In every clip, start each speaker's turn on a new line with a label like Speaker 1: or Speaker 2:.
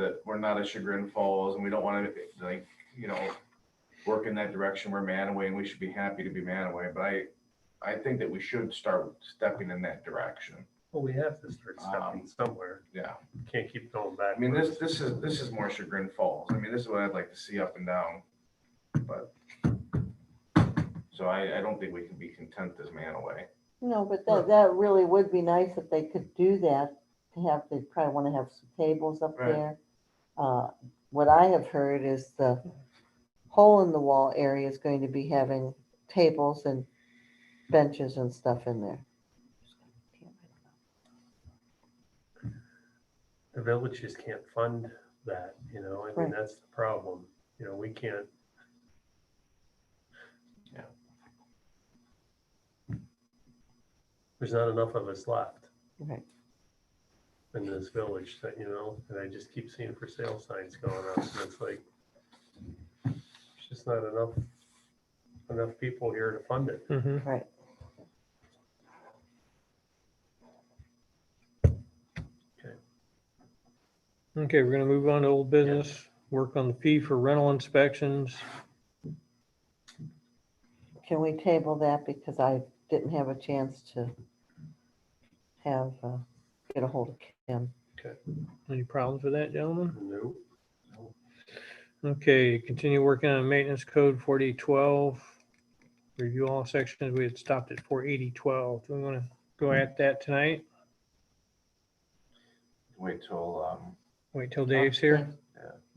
Speaker 1: that we're not a Chagrin Falls and we don't want to like, you know, work in that direction. We're Manaway and we should be happy to be Manaway. But I, I think that we should start stepping in that direction.
Speaker 2: Well, we have to start
Speaker 1: Um,
Speaker 2: stepping somewhere.
Speaker 1: Yeah.
Speaker 2: Can't keep going
Speaker 1: I mean,
Speaker 2: backwards.
Speaker 1: this, this is, this is more Chagrin Falls. I mean, this is what I'd like to see up and down, but. So I, I don't think we can be content as Manaway.
Speaker 3: No, but that, that really would be nice if they could do that, to have, they probably want to have some tables up
Speaker 1: Right.
Speaker 3: there. Uh, What I have heard is the hole in the wall area is going to be having tables and benches and stuff in there.
Speaker 2: The village just can't fund that, you know, I
Speaker 3: Right.
Speaker 2: mean, that's the problem. You know, we can't.
Speaker 1: Yeah.
Speaker 2: There's not enough of us left
Speaker 3: Right.
Speaker 2: in this village that, you know, and I just keep seeing for sale signs going up and it's like. It's just not enough, enough people here to fund it.
Speaker 4: Mhm.
Speaker 3: Right.
Speaker 4: Okay, we're gonna move on to old business, work on the fee for rental inspections.
Speaker 3: Can we table that because I didn't have a chance to have, uh, get a hold of Kim.
Speaker 4: Any problems with that, gentlemen?
Speaker 2: Nope.
Speaker 4: Okay, continue working on maintenance code forty twelve. Review all sections. We had stopped at four eighty twelve. Do we want to go at that tonight?
Speaker 1: Wait till, um,
Speaker 4: Wait till Dave's here?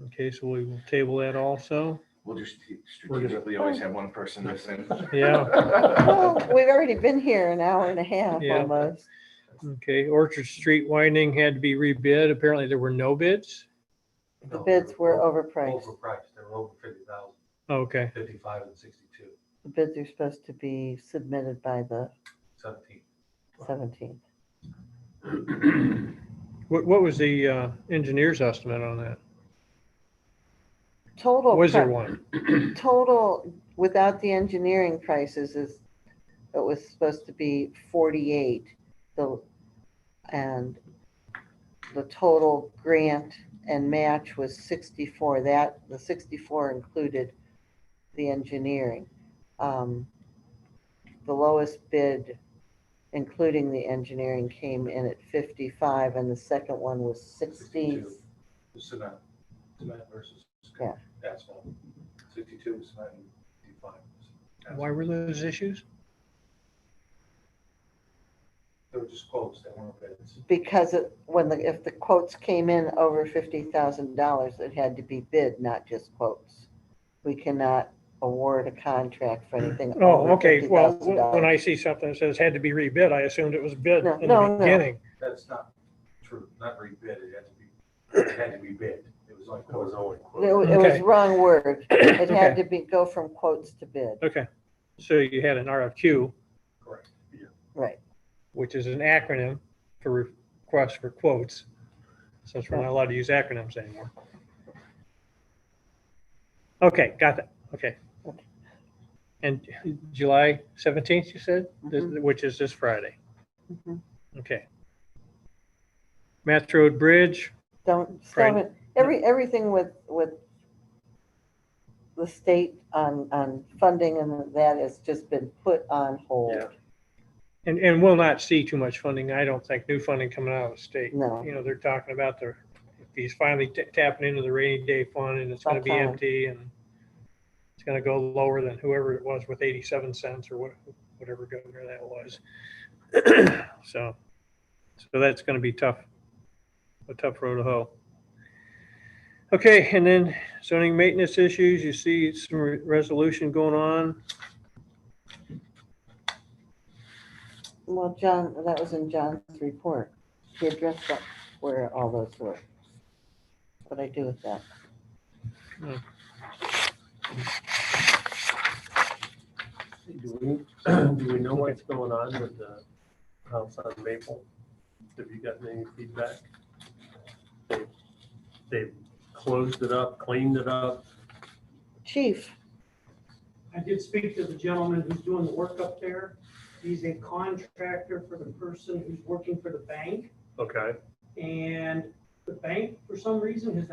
Speaker 4: Okay, so we will table that also.
Speaker 1: we'll just strategically always have one person missing.
Speaker 4: Yeah,
Speaker 3: Well, Oh, We've already been here an hour and a half
Speaker 4: Yeah.
Speaker 3: almost.
Speaker 4: okay. Orchard Street widening had to be rebid. Apparently there were no bids.
Speaker 3: The bids were overpriced.
Speaker 5: Overpriced, they were over fifty thousand,
Speaker 4: Okay,
Speaker 5: fifty-five and sixty-two,
Speaker 3: The bids are supposed to be submitted by the
Speaker 5: seventeen.
Speaker 3: seventeenth.
Speaker 4: what, what was the uh, engineer's estimate on that?
Speaker 3: Total,
Speaker 4: Was there
Speaker 3: pri-
Speaker 4: one?
Speaker 3: total, without the engineering prices is, it was supposed to be forty-eight. The, and the total grant and match was sixty-four. That, the sixty-four included the engineering. Um, The lowest bid, including the engineering, came in at fifty-five and the second one was sixty.
Speaker 5: 62. The Cement, cement versus
Speaker 3: Yeah.
Speaker 5: asphalt, sixty-two was cement and fifty-five. was asphalt.
Speaker 4: Why were those issues?
Speaker 5: They were just quotes, they weren't bids.
Speaker 3: Because it, when the, if the quotes came in over fifty thousand dollars, it had to be bid, not just quotes. We cannot award a contract for anything.
Speaker 4: Oh,
Speaker 3: over
Speaker 4: okay. Well,
Speaker 3: $50,000.
Speaker 4: when I see something that says had to be rebid, I assumed it was bid
Speaker 3: No,
Speaker 4: in
Speaker 3: no, no.
Speaker 4: the beginning.
Speaker 5: That's not true, not rebid, it had to be, it had to be bid, it was like.
Speaker 2: That was only.
Speaker 3: It wa- it was
Speaker 4: Okay.
Speaker 3: wrong word. It had
Speaker 4: Okay.
Speaker 3: to be, go from quotes to bid,
Speaker 4: Okay, so you had an RFQ,
Speaker 5: Correct, yeah.
Speaker 3: right.
Speaker 4: which is an acronym for request for quotes, since we're not allowed to use acronyms anymore. Okay, got that, okay.
Speaker 3: Okay.
Speaker 4: And July seventeenth, you said, This-
Speaker 3: Mhm.
Speaker 4: which is this Friday,
Speaker 3: Mhm.
Speaker 4: okay. Math Road Bridge,
Speaker 3: Don't,
Speaker 4: Right.
Speaker 3: stop it. every, everything with, with the state on, on funding and that has just been put on hold.
Speaker 4: Yeah. and, and we'll not see too much funding, I don't think, new funding coming out of the state.
Speaker 3: No,
Speaker 4: you know, they're talking about the, if he's finally ta- tapping into the rainy day fund and it's gonna be
Speaker 3: Sometime.
Speaker 4: empty and it's gonna go lower than whoever it was with eighty-seven cents or what, whatever governor that was. So, so that's gonna be tough, a tough road to hoe. Okay, and then zoning maintenance issues, you see some re- resolution going on.
Speaker 3: well, John, that was in John's report. He addressed that, where all those were. What I do with that.
Speaker 2: Do we, do we know what's going on with the house on Maple? Have you gotten any feedback? They- They've closed it up, cleaned it up.
Speaker 3: Chief,
Speaker 6: I did speak to the gentleman who's doing the work up there. He's a contractor for the person who's working for the bank.
Speaker 2: Okay.
Speaker 6: And the bank, for some reason, has